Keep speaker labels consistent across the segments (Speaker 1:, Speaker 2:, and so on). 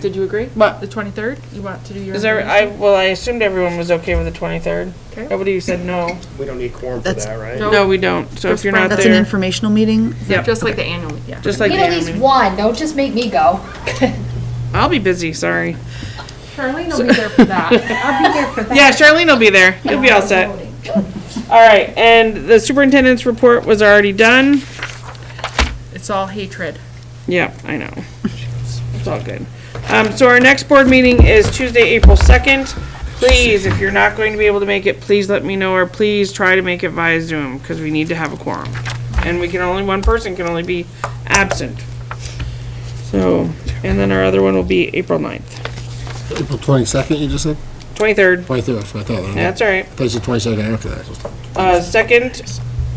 Speaker 1: Did you agree?
Speaker 2: But,
Speaker 1: The twenty-third? You want to do your?
Speaker 2: is there, I, well, I assumed everyone was okay with the 23rd.
Speaker 1: Okay.
Speaker 2: Nobody said no.
Speaker 3: We don't need quorum for
Speaker 4: That's-
Speaker 3: that, right?
Speaker 1: No.
Speaker 2: No, we don't, so if you're not
Speaker 4: That's an
Speaker 2: there,
Speaker 4: informational meeting?
Speaker 2: yep,
Speaker 1: Just like the annual, yeah.
Speaker 2: just
Speaker 5: We
Speaker 2: like
Speaker 5: Need
Speaker 2: the
Speaker 5: at least
Speaker 2: annual.
Speaker 5: one, don't just make me go.
Speaker 2: I'll be busy, sorry.
Speaker 1: Charlene will be there for that.
Speaker 6: I'll be there for that.
Speaker 2: Yeah, Charlene will be there, you'll be all set. All right, and the superintendent's report was already done.
Speaker 1: It's all hatred.
Speaker 2: Yeah, I know. It's all good. Um, so our next board meeting is Tuesday, April second. Please, if you're not going to be able to make it, please let me know, or please try to make it via Zoom, because we need to have a quorum. And we can only, one person can only be absent. So, and then our other one will be April 9th,
Speaker 7: April twenty-second, you just said?
Speaker 2: twenty-third.
Speaker 7: Twenty-third, so I thought, I
Speaker 2: That's all right.
Speaker 7: thought you said twenty-second after that.
Speaker 2: Uh, second,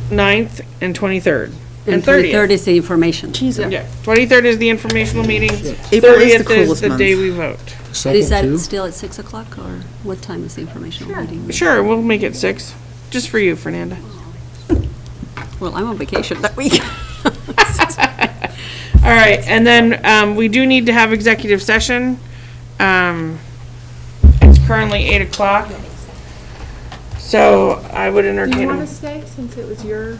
Speaker 2: 9th, and twenty-third. And
Speaker 6: And 23rd
Speaker 2: thirtieth.
Speaker 6: is the information.
Speaker 2: Yeah, twenty-third is the informational meeting.
Speaker 4: April is the
Speaker 2: Thirtieth is
Speaker 4: coolest
Speaker 2: the
Speaker 4: month.
Speaker 2: day we vote.
Speaker 6: Is
Speaker 7: Second,
Speaker 6: that
Speaker 7: too?
Speaker 6: still at 6 o'clock, or what time is the informational meeting?
Speaker 2: Sure, we'll make it six, just for you, Fernanda.
Speaker 6: Well, I'm on vacation that week.
Speaker 2: All right, and then, um, we do need to have executive session. Um, it's currently eight o'clock. So I would
Speaker 1: Do you
Speaker 2: entertain,
Speaker 1: want to
Speaker 2: a-
Speaker 1: stay since it was your?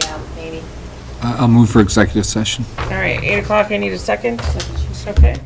Speaker 5: Yeah, maybe.
Speaker 8: I- I'll move for executive session.
Speaker 2: all right, eight o'clock, I need a second. Okay.